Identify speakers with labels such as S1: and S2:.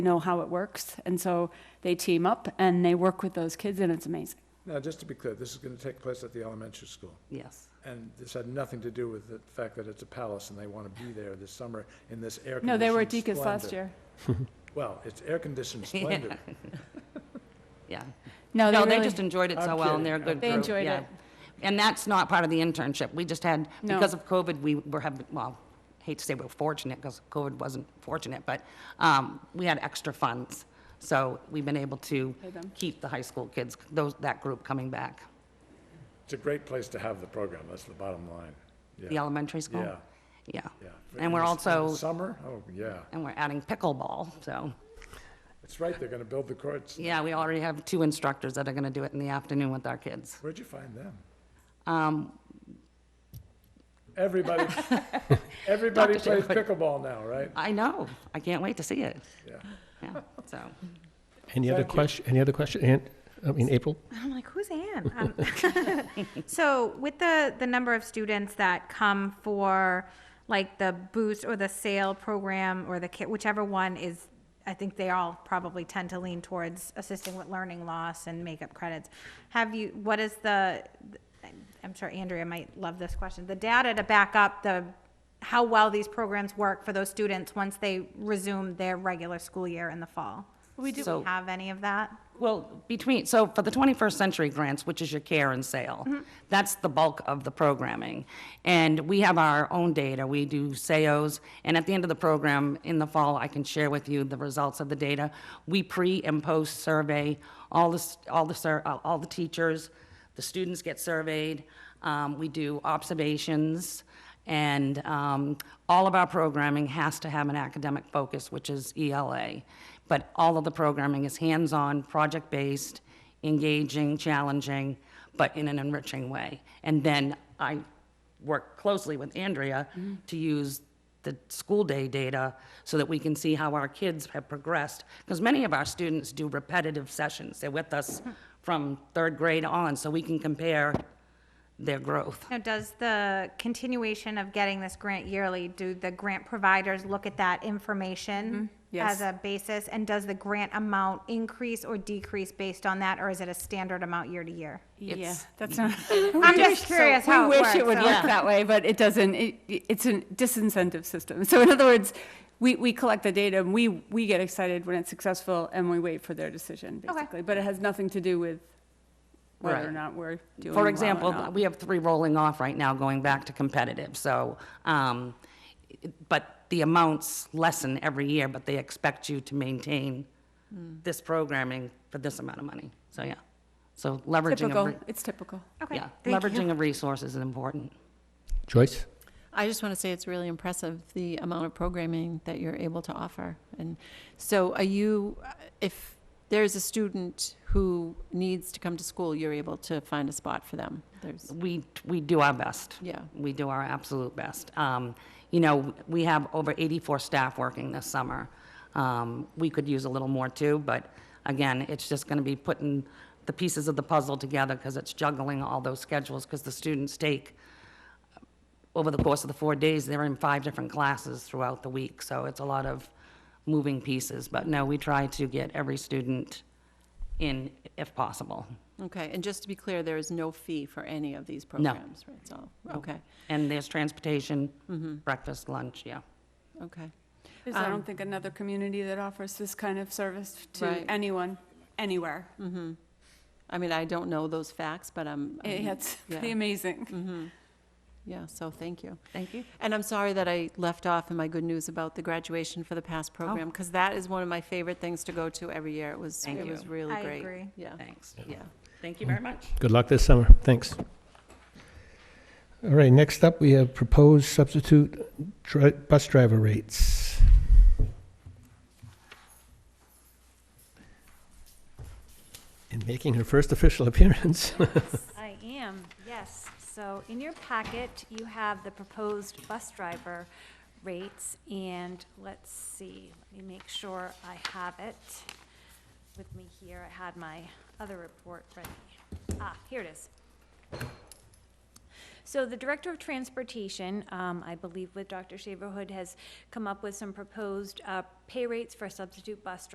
S1: know how it works. And so they team up and they work with those kids, and it's amazing.
S2: Now, just to be clear, this is going to take place at the elementary school,
S3: Yes.
S2: and this had nothing to do with the fact that it's a palace and they want to be there this summer in this air-conditioned
S1: No, they were at Deacon's
S2: splendor.
S1: last year.
S2: Well, it's air-conditioned splendor.
S3: Yeah.
S1: No,
S3: No,
S1: Oh, they
S3: they
S1: really,
S3: just enjoyed it
S2: I'm
S3: so well, and they're a
S2: kidding.
S3: good
S1: They
S3: group,
S1: enjoyed
S3: yeah.
S1: it.
S3: And that's not part of the internship. We just had,
S1: No.
S3: because of COVID, we were having, well, hate to say we're fortunate, because COVID wasn't fortunate, but um, we had extra funds. So we've been able to
S1: Pay them.
S3: keep the high school kids, those, that group coming back.
S2: It's a great place to have the program, that's the bottom line.
S3: The
S2: Yeah,
S3: elementary school?
S2: Yeah.
S3: Yeah.
S2: yeah.
S3: And
S2: In
S3: we're
S2: the s- in the
S3: also,
S2: Summer, oh, yeah.
S3: and we're adding pickleball, so,
S2: It's right, they're going to build the courts.
S3: yeah, we already have two instructors that are going to do it in the afternoon with our kids.
S2: Where'd you find them?
S3: Um,
S2: Everybody, everybody
S3: Dr.
S2: plays
S3: Shepherd.
S2: pickleball now, right?
S3: I know, I can't wait to see it,
S2: Yeah.
S3: yeah, so.
S4: Any other
S2: Thank you.
S4: question, any other question, Ann, I mean, April?
S5: I'm like, who's Anne? Um, so with the the number of students that come for like the boost or the sale program or the kit, whichever one is, I think they all probably tend to lean towards assisting with learning loss and makeup credits. Have you? What is the? I'm sure Andrea might love this question. The data to back up the how well these programs work for those students once they resume their regular school year in the fall.
S3: We do-
S5: Do we have any of that?
S3: Well, between, so for the 21st Century Grants, which is your care and sale, that's the bulk of the programming. And we have our own data, we do SEOs, and at the end of the program, in the fall, I can share with you the results of the data. We pre and post survey all the, s- all the, sur- all all the teachers, the students get surveyed, um, we do observations, and um, all of our programming has to have an academic focus, which is ELA. But all of the programming is hands-on, project-based, engaging, challenging, but in an enriching way. And then I work closely with Andrea
S1: Mm-hmm.
S3: to use the school day data so that we can see how our kids have progressed. Because many of our students do repetitive sessions. They're with
S1: Mm-hmm.
S3: us from third grade on, so we can compare their growth.
S5: Now, does the continuation of getting this grant yearly, do the grant providers look at that information
S1: yes.
S5: as a basis? And does the grant amount increase or decrease based on that, or is it a standard amount year to year?
S1: yeah,
S3: It's-
S1: that's not.
S5: I'm just curious how it
S1: We
S5: works.
S1: wish it would
S5: so-
S1: work that way, but it doesn't, it, it's a disincentive system. So in other words, we, we collect the data and we, we get excited when it's successful and we wait for their decision,
S5: Okay.
S1: basically. But it has nothing to do with whether or
S3: Right.
S1: not we're doing well
S3: For
S1: or
S3: example,
S1: not.
S3: we have three rolling off right now, going back to competitive, so, um, it- but the amounts lessen every year, but they expect you to maintain
S1: Mm.
S3: this programming for this amount of money, so, yeah. So leveraging of,
S1: Typical,
S3: re-
S1: it's typical.
S5: Okay,
S3: yeah,
S5: thank you.
S3: leveraging of resources is important.
S4: Joyce?
S6: I just want to say it's really impressive, the amount of programming that you're able to offer. And so are you, uh, if there's a student who needs to come to school, you're able to find a spot for them? There's,
S3: We, we do our best.
S6: Yeah.
S3: We do our absolute best. Um, You know, we have over 84 staff working this summer. Um, We could use a little more too, but again, it's just going to be putting the pieces of the puzzle together because it's juggling all those schedules because the students take, over the course of the four days, they're in five different classes throughout the week. So it's a lot of moving pieces. But no, we try to get every student in if possible.
S6: okay, and just to be clear, there is no fee for any of these programs, right? So, okay,
S3: And there's transportation, breakfast, lunch, yeah.
S6: okay.
S1: There's, I
S6: Um,
S1: don't think, another community that offers this kind of service to
S6: Right.
S1: anyone, anywhere.
S6: I mean, I don't know those facts, but I'm,
S1: It-
S6: I'm-
S1: It's
S6: yeah.
S1: pretty amazing.
S6: yeah, so thank you.
S3: Thank you.
S6: And I'm sorry that I left off in my good news about the graduation for the
S3: Oh.
S6: past program, because that is one of my favorite things to go to every year. It was,
S3: Thank
S6: it
S3: you.
S6: was really
S5: I
S6: great.
S5: agree.
S6: Yeah,
S3: Thanks.
S6: yeah.
S3: Thank you very much.
S4: Good luck this summer, thanks. All right, next up, we have proposed substitute dri- bus driver rates. And making her first official appearance,
S7: I am, yes. So in your packet, you have the proposed bus driver rates, and let's see, let me make sure I have it with me here. I had my other report ready. Ah, here it is. So the Director of Transportation, um, I believe with Dr. Shaverhood, has come up with some proposed, uh, pay rates for substitute bus drivers.